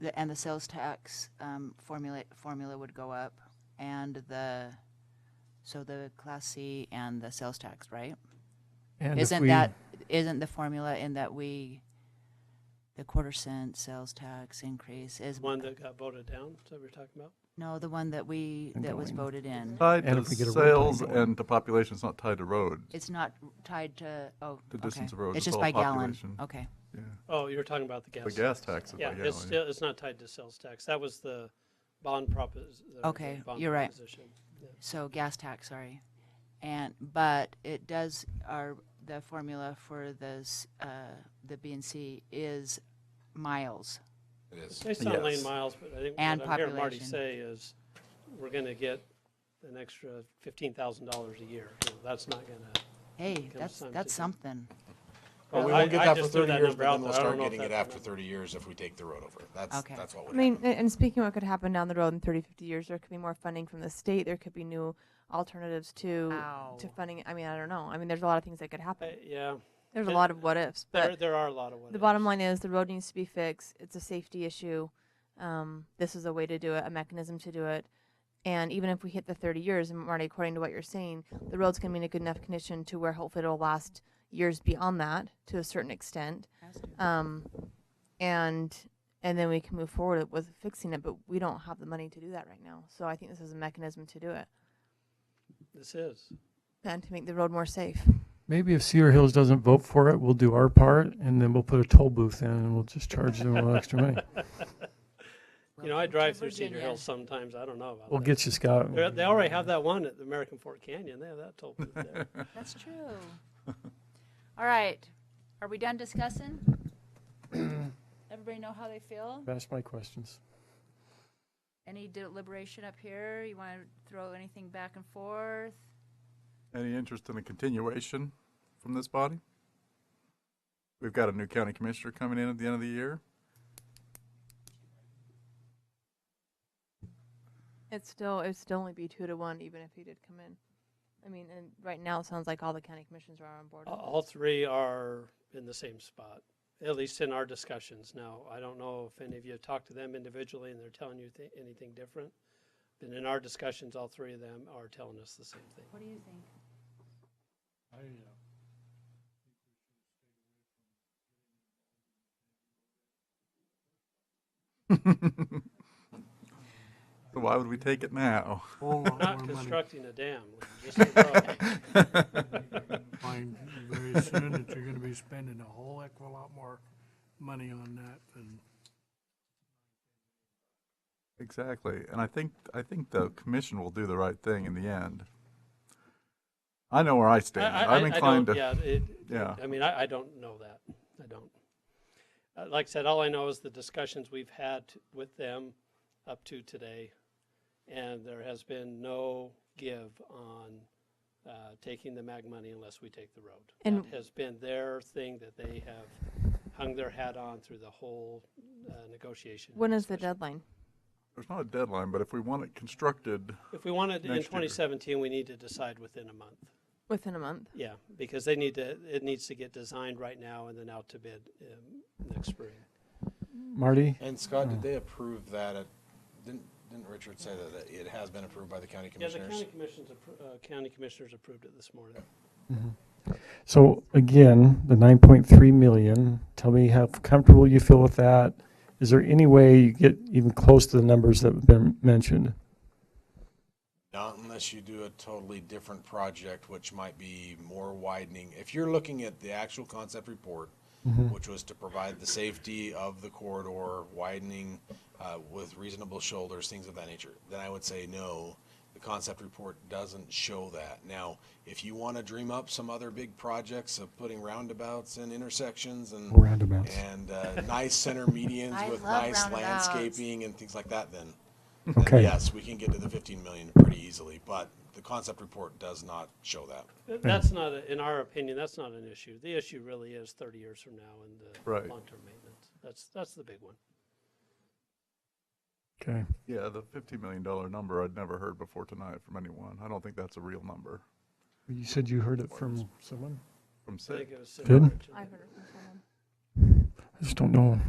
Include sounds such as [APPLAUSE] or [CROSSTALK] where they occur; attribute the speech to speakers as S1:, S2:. S1: the, and the sales tax, um, formula, formula would go up and the, so the class C and the sales tax, right?
S2: And if
S1: Isn't
S2: we-
S1: that, isn't the formula in that we, the quarter cent sales tax increase is,
S3: One that got voted down, is that what you're talking about?
S1: no, the one that we, that was
S2: Ongoing.
S1: voted in.
S4: Tied
S2: And
S4: to
S2: if we get a road
S4: sales
S2: plan going.
S4: and to population, it's not tied to road.
S1: It's not tied to, oh,
S4: The
S1: okay.
S4: distance of roads,
S1: It's just
S4: it's all
S1: by gallon.
S4: population.
S1: Okay.
S4: Yeah.
S3: Oh, you're talking about the gas.
S4: The gas tax is by
S3: Yeah, it's,
S4: gallon.
S3: still- it's not tied to sales tax. That was the bond propos- the- the
S1: Okay,
S3: bond
S1: you're right.
S3: proposition.
S1: So gas tax, sorry. And, but it does, our, the formula for this, uh, the B and C is miles.
S5: It is.
S3: Based on lane
S4: Yes.
S3: miles, but I think
S1: And
S3: what I'm hearing Marty
S1: population.
S3: say is, we're gonna get an extra fifteen thousand dollars a year. You know, That's not gonna.
S1: Hey, that's,
S3: time
S1: that's
S3: to-
S1: something.
S5: Well, we
S3: I-
S5: won't get
S3: I
S5: that for
S3: just threw
S5: 30
S3: that
S5: years,
S3: number
S5: but
S3: out
S5: then we'll
S3: there. I don't
S5: start
S3: know if
S5: getting it
S3: that's
S5: after
S3: enough.
S5: 30 years if we take the road over. That's,
S1: Okay.
S5: that's what
S6: I
S5: would
S6: mean,
S5: happen.
S6: a- and speaking of what could happen down the road in 30, 50 years, there could be more funding from the state. There could be new alternatives to to
S1: Ow.
S6: funding. I mean, I don't know. I mean, there's a lot of things that could happen.
S3: I- Yeah,
S6: There's a
S3: it-
S6: lot of what ifs,
S3: Uh, there,
S6: but
S3: there are a lot of what
S6: the bottom
S3: ifs.
S6: line is the road needs to be fixed. It's a safety issue. Um, this is a way to do it, a mechanism to do it. And even if we hit the 30 years, and Marty, according to what you're saying, the road's going to be in a good enough condition to where hopefully it'll last years beyond that to a certain extent. Um, and and then we can move forward with fixing it, but we don't have the money to do that right now. So I think this is a mechanism to do it
S3: This is.
S6: and to make the road more safe.
S2: Maybe if Cedar Hills doesn't vote for it, we'll do our part and then we'll put a toll booth in and we'll just charge them a little
S1: [LAUGHS]
S2: extra money.
S3: You know, I drive through Cedar
S1: Virginia.
S3: Hills sometimes. I don't know about
S2: We'll
S3: that.
S2: get you, Scott.
S3: They're- They already have that one at the American Fort Canyon. They have that toll booth there.
S1: That's true. [LAUGHS] All right, are we done discussing? Everybody know how they feel?
S2: Ask my questions.
S1: Any deliberation up here? You want to throw anything back and forth?
S4: Any interest in a continuation from this body? We've got a new county commissioner coming in at the end of the year. [LAUGHS]
S6: It's still it would still only be two to one, even if he did come in. I mean, and right now it sounds like all the county commissions are on board.
S3: A- All three are in the same spot, at least in our discussions now. I don't know if any of you have talked to them individually and they're telling you th- anything different. But in our discussions, all three of them are telling us the same thing.
S1: What do you think?
S4: So why would we take it now?
S7: whole
S3: Not
S7: lot more money
S3: constructing a dam, just a road. [LAUGHS]
S7: find very soon that you're gonna be spending a whole heck of a lot more money on that than
S4: [LAUGHS] Exactly. And I think I think the commission will do the right thing in the end. I know where I stand.
S3: I- I-
S4: am
S3: I don't-
S4: inclined to
S3: Yeah, it,
S4: Yeah.
S6: Uh-huh.
S3: I mean, I, I don't know that. I don't. Uh, like I said, all I know is the discussions we've had with them up to today, and there has been no give on uh, taking the MAG money unless we take the road.
S6: And-
S3: that has been their thing that they have hung their hat on through the whole uh, negotiation.
S6: When is the
S3: discussion.
S6: deadline?
S4: there's not a deadline, but if we want it constructed
S3: If we wanted in
S4: next year?
S3: 2017, we need to decide within a month.
S6: Within a month.
S3: Yeah, because they need to, it needs to get designed right now and then out to bid um, next spring.
S2: Marty,
S5: And Scott, did they approve that? At, didn't didn't Richard say that, that it has been approved by the county
S3: Yeah, the
S5: commissioners?
S3: county commissions, appro- uh, county commissioners approved it this morning.
S2: Mm-hmm. so again, the nine point three million, tell me how comfortable you feel with that. Is there any way you get even close to the numbers that have been
S1: [LAUGHS]
S2: mentioned?
S5: Not unless you do a totally different project, which might be more widening. If you're looking at the actual concept report, which was to provide the safety of the corridor, widening uh, with reasonable shoulders, things of that nature, then I would say no. The concept report doesn't show that. Now, if you want to dream up some other big projects of putting roundabouts and intersections and
S2: Roundabouts.
S5: and uh, nice center
S1: [LAUGHS]
S5: medians
S1: I
S5: with
S1: love
S5: nice
S1: roundabouts.
S5: landscaping and things like that, then then
S2: Okay.
S5: yes, we can get to the 15 million pretty easily, but the concept report does not show that.
S3: Th- That's not, a- in our opinion, that's not an issue. The issue really is thirty years from now and
S4: Right.
S3: the long-term maintenance. That's, that's the big one.
S2: Okay.
S4: Yeah, the fifty million dollar number I'd never heard before tonight from anyone. I don't think that's a real number
S2: You said you heard it from someone?
S4: from
S3: I think
S4: Sid.
S3: it was. Sid
S2: Good.
S3: Richard.
S6: I've heard it from someone.
S2: I just don't know.